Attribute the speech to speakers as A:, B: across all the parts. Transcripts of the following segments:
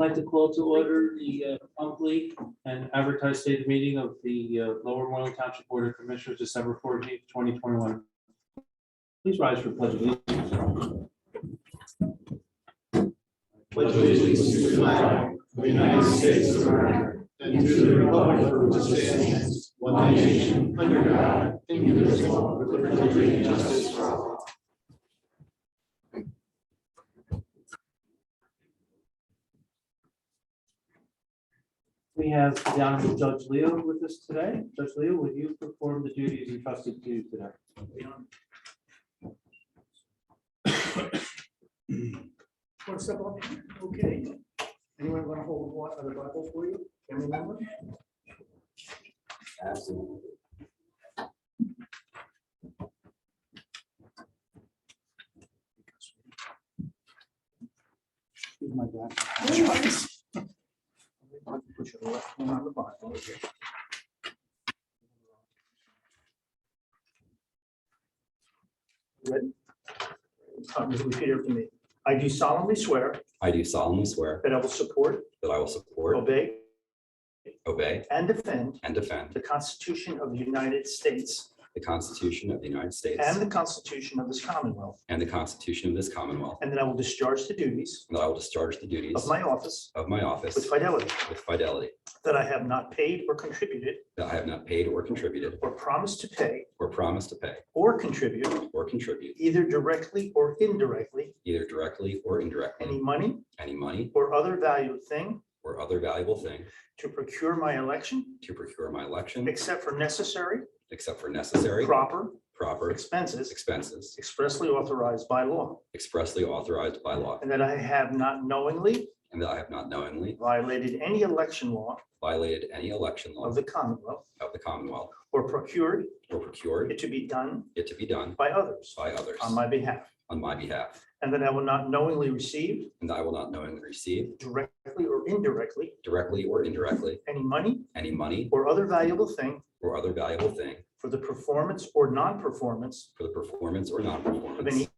A: I'd Like to call to order the uh, monthly and advertised state meeting of the uh, Lower Moreland Township Board of Commissioners, December fourteenth, twenty twenty-one. Please rise for pledge of allegiance.
B: pledge allegiance to the flag of the United States of America and to the republic for which it stands, one nation, under God, indivisible, with liberty and justice for all.
A: We have the Honorable Judge Leo with us today. Judge Leo, will you perform the duties entrusted to you today?
C: One step up, okay. Anyone want to hold one other Bible for you? Family member? Give my back. Put your left hand on the Bible. Ready? Um, Repeat after me. I do solemnly swear
D: I do solemnly swear
C: that I will support,
D: that I will support,
C: obey, Oh.
D: obey,
C: and defend
D: and
C: the
D: defend
C: Constitution of the United States
D: the Constitution of the United States
C: and the Constitution of this Commonwealth,
D: and the Constitution of this Commonwealth,
C: and that I will discharge the duties
D: and that I will discharge the duties
C: of my office
D: of my office
C: with fidelity,
D: with fidelity,
C: that I have not paid or contributed
D: that I have not paid or contributed
C: or promised to pay
D: or promised to pay
C: or contribute,
D: or contribute
C: either directly or indirectly,
D: either directly or
C: any
D: indirectly
C: money
D: any money
C: or other valued thing
D: or other valuable thing
C: to procure my election,
D: to procure my election,
C: except for necessary,
D: except for necessary,
C: proper
D: proper
C: expenses
D: expenses
C: expressly authorized by law,
D: expressly authorized by law,
C: and that I have not knowingly
D: and that I have not knowingly
C: violated any election law
D: violated any election law
C: of the Commonwealth
D: of the Commonwealth
C: or procured
D: or procured
C: it to be done
D: it to be done
C: by others
D: by others.
C: on my behalf,
D: on my behalf,
C: and that I will not knowingly receive
D: and that I will not knowingly receive,
C: directly or indirectly,
D: directly or indirectly,
C: any money
D: any money
C: or other valuable thing
D: or other valuable thing
C: for the performance or non-performance
D: for the performance or
C: of
D: non-performance
C: any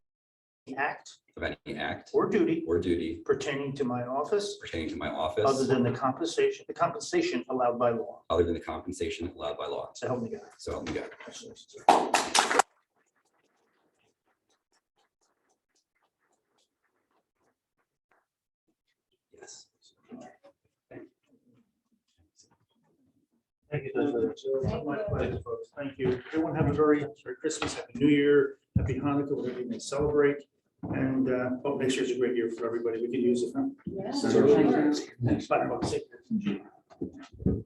C: act
D: of any act
C: or duty
D: or duty
C: pertaining to my office
D: pertaining to my
C: other
D: office,
C: than the compensation, the compensation allowed by law.
D: other than the compensation allowed by law.
C: So help me God.
D: So help me God.
C: Congratulations, sir.
D: Yes.
A: Thank you, Judge Leo.
C: My pleasure, folks. Thank you. Everyone have a very Merry Christmas, Happy New Year, Happy Hanukkah, whatever you may celebrate. And uh, hope next year's a great year for everybody. We could use it. huh? So, bye, folks. Take care.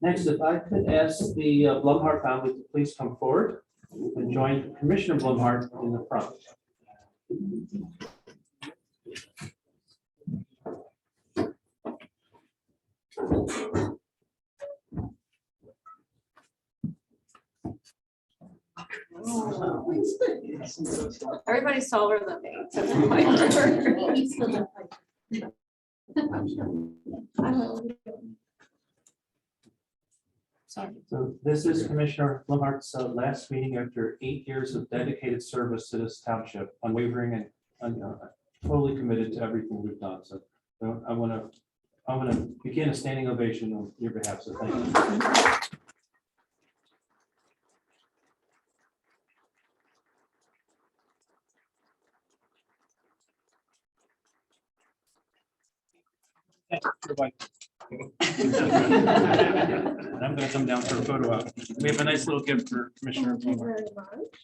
A: Next, if I could ask the uh, Blumhardt family to please come forward and join Commissioner Blumhardt in the front.
E: Everybody saw her the thing. so it's like-
A: So this is Commissioner Blumhardt's uh, last meeting after eight years of dedicated service to this township, unwavering and un- uh, totally committed to everything we've done. So uh, I want to, I'm going to begin a standing ovation on your behalf, so thank you. Goodbye. And I'm gonna come down for a photo op. We have a nice little gift for Commissioner.
E: Thank you
A: Blumhardt.
E: very much.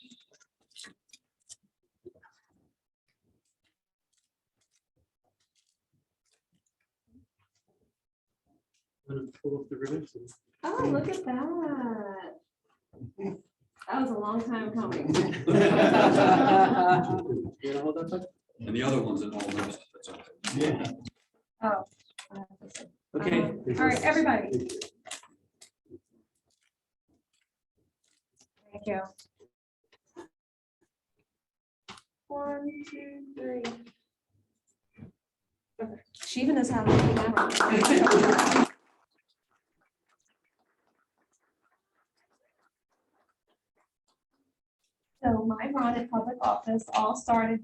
A: I'm gonna pull up the ribbons and-
E: Oh, look at that. That was a long time coming.
A: You wanna hold that up?
F: And the other one's in all those.
E: Oh.
A: Okay.
E: Um, All right, everybody. Thank you. One, two, three. Okay. She even knows how to. do that. So my run at public office all started